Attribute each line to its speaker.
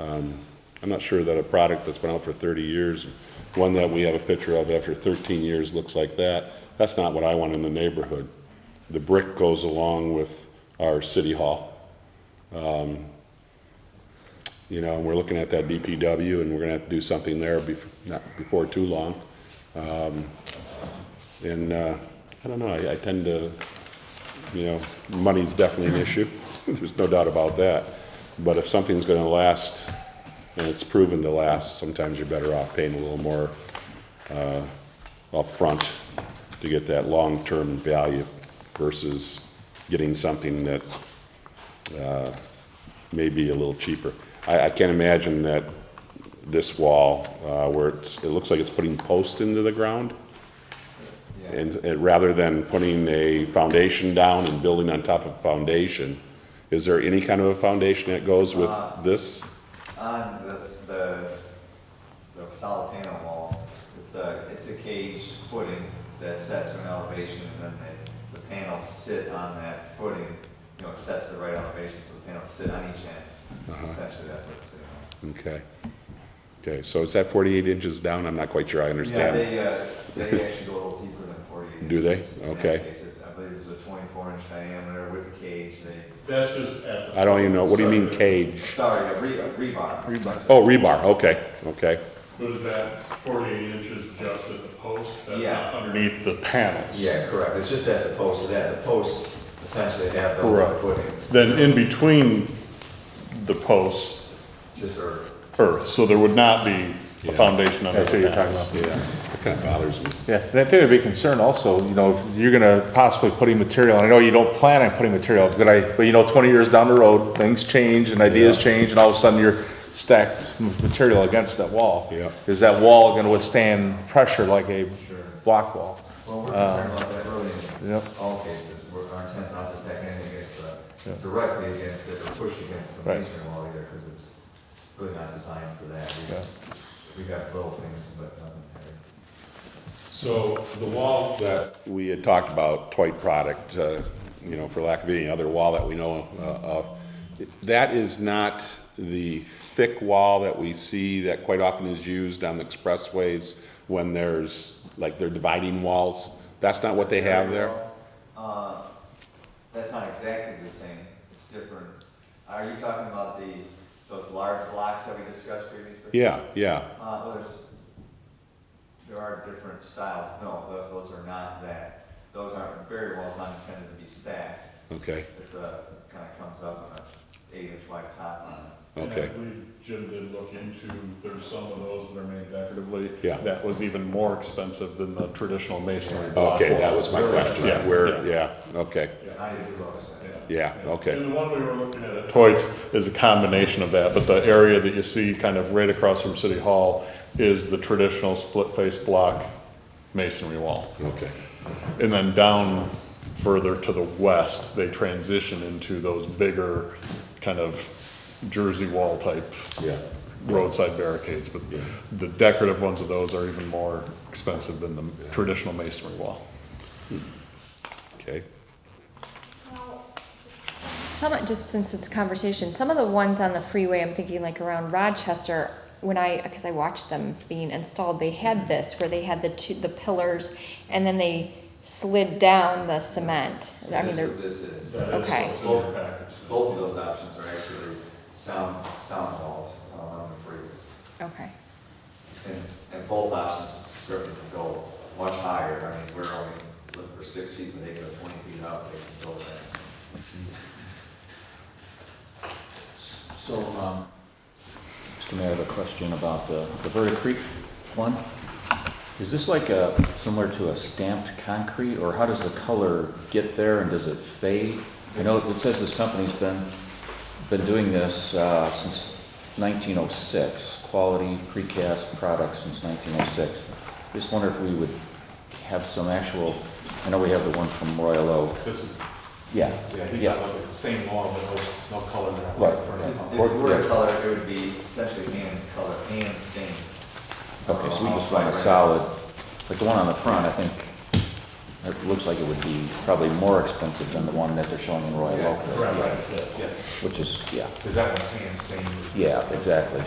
Speaker 1: Um, I'm not sure that a product that's been out for 30 years, one that we have a picture of after 13 years looks like that. That's not what I want in the neighborhood. The brick goes along with our city hall. Um, You know, and we're looking at that DPW and we're gonna have to do something there bef- not before too long. Um, And, uh, I don't know, I, I tend to, you know, money's definitely an issue. There's no doubt about that. But if something's gonna last and it's proven to last, sometimes you're better off paying a little more, uh, upfront to get that long-term value versus getting something that maybe a little cheaper. I, I can't imagine that this wall, uh, where it's, it looks like it's putting posts into the ground, and, and rather than putting a foundation down and building on top of foundation, is there any kind of a foundation that goes with
Speaker 2: Uh,
Speaker 1: this?
Speaker 2: Um, that's the, the solid panel wall. It's a, it's a caged footing that's set to an elevation and then the, the panels sit on that footing. You know, it's set to the right elevation, so the panels sit on each
Speaker 1: Uh-huh.
Speaker 2: end. Essentially, that's what it's sitting on.
Speaker 1: Okay. Okay, so is that forty-eight inches down? I'm not quite sure I
Speaker 2: Yeah,
Speaker 1: understand.
Speaker 2: they, uh, they actually go a little deeper than forty-eight.
Speaker 1: Do they?
Speaker 2: inches. In that
Speaker 1: Okay.
Speaker 2: case, it's- I believe it's a twenty-four inch diameter with a cage. They,
Speaker 3: That's just at the.
Speaker 1: I don't even know, what do you mean cage?
Speaker 2: sorry, a re, a rebar. Rebar.
Speaker 1: Oh, rebar, okay, okay.
Speaker 3: What is that, forty-eight inches just at the post? That's
Speaker 2: Yeah.
Speaker 3: not underneath the panels.
Speaker 2: Yeah, correct. It's just at the post, that, the posts essentially have the
Speaker 3: Correct.
Speaker 2: footing,
Speaker 3: Then in between the posts,
Speaker 2: just or.
Speaker 3: earth, so there would not be a foundation under
Speaker 4: That's what you're
Speaker 3: the
Speaker 4: talking
Speaker 3: panels.
Speaker 4: about.
Speaker 1: Yeah, that kind of bothers me.
Speaker 4: Yeah, and I think there'd be concern also, you know, if you're gonna possibly putting material, and I know you don't plan on putting material, but I, but you know, twenty years down the road, things change and ideas
Speaker 1: Yeah.
Speaker 4: change, and all of a sudden you're stacked with material against that wall.
Speaker 1: Yeah.
Speaker 4: Is that wall gonna withstand pressure like a block wall?
Speaker 2: Well, we're
Speaker 1: Uh,
Speaker 2: concerned about that really in
Speaker 4: Yep.
Speaker 2: all cases. We're, our intent's not to stack anything against the, directly against it or push against the
Speaker 4: Right.
Speaker 2: masonry wall either, because it's really not designed for that. We-
Speaker 4: Yeah.
Speaker 2: We got little things, but nothing heavy.
Speaker 1: So the wall that we had talked about, Toit product, uh, you know, for lack of any other wall that we know uh, of, that is not the thick wall that we see that quite often is used on the expressways when there's, like, they're dividing walls. That's not what they have there?
Speaker 2: Uh, That's not exactly the same, it's different. Are you talking about the, those large blocks that we discussed previously?
Speaker 1: Yeah, yeah,
Speaker 2: Uh, well, there's, there are different styles, no, tho- those are not that. Those aren't, barrier wall's not intended to be stacked,
Speaker 1: okay,
Speaker 2: it's a, kinda comes up on a eight inch wide top on it.
Speaker 3: And I
Speaker 1: okay.
Speaker 3: believe Jim did look into, there's some of those that are made decoratively.
Speaker 1: Yeah.
Speaker 3: That was even more expensive than the traditional masonry block
Speaker 1: Okay, that
Speaker 3: walls.
Speaker 1: was my question,
Speaker 3: Yeah,
Speaker 1: where, yeah, okay,
Speaker 2: Not even close.
Speaker 1: yeah, okay,
Speaker 3: And the one we were looking at at Toits is a combination of that, but the area that you see kind of right across from City Hall is the traditional split-face block masonry wall.
Speaker 1: okay.
Speaker 3: And then down further to the west, they transition into those bigger kind of Jersey wall type
Speaker 1: Yeah.
Speaker 3: roadside barricades, but
Speaker 1: Yeah.
Speaker 3: the decorative ones of those are even more expensive than the traditional masonry wall.
Speaker 1: Okay,
Speaker 5: Some, just since it's a conversation, some of the ones on the freeway, I'm thinking like around Rochester, when I, because I watched them being installed, they had this, where they had the two, the pillars, and then they slid down the cement. I mean,
Speaker 2: That's
Speaker 5: they're,
Speaker 2: what This is,
Speaker 5: okay,
Speaker 2: both, both of those options are actually sound, sound walls along the freeway.
Speaker 5: okay.
Speaker 2: And, and both options certainly can go much higher, I mean, we're only looking for six feet, but they go twenty feet up, they can go that.
Speaker 6: So, um, Mr. Mayor, I have a question about the, the Verta Creek one. Is this like a, similar to a stamped concrete, or how does the color get there, and does it fade? I know it says this company's been, been doing this, uh, since nineteen oh six, quality precast products since nineteen oh six. Just wonder if we would have some actual, I know we have the one from Royal Oak,
Speaker 7: This is,
Speaker 6: yeah,
Speaker 7: yeah, he's
Speaker 6: yeah.
Speaker 7: got like the same lawn, but no, no color in that.
Speaker 6: Right.
Speaker 7: For
Speaker 2: If
Speaker 7: that
Speaker 2: if it
Speaker 7: color.
Speaker 2: were a color, it would be essentially hand color, Uh, hand stained.
Speaker 6: Okay, so we just want a solid, like the one on the front, I think, it looks like it would be probably more expensive than the one that they're showing in Royal Oak,
Speaker 7: Right, right, yes.
Speaker 6: which is, yeah,
Speaker 7: Because that one's hand stained.
Speaker 6: yeah, exactly,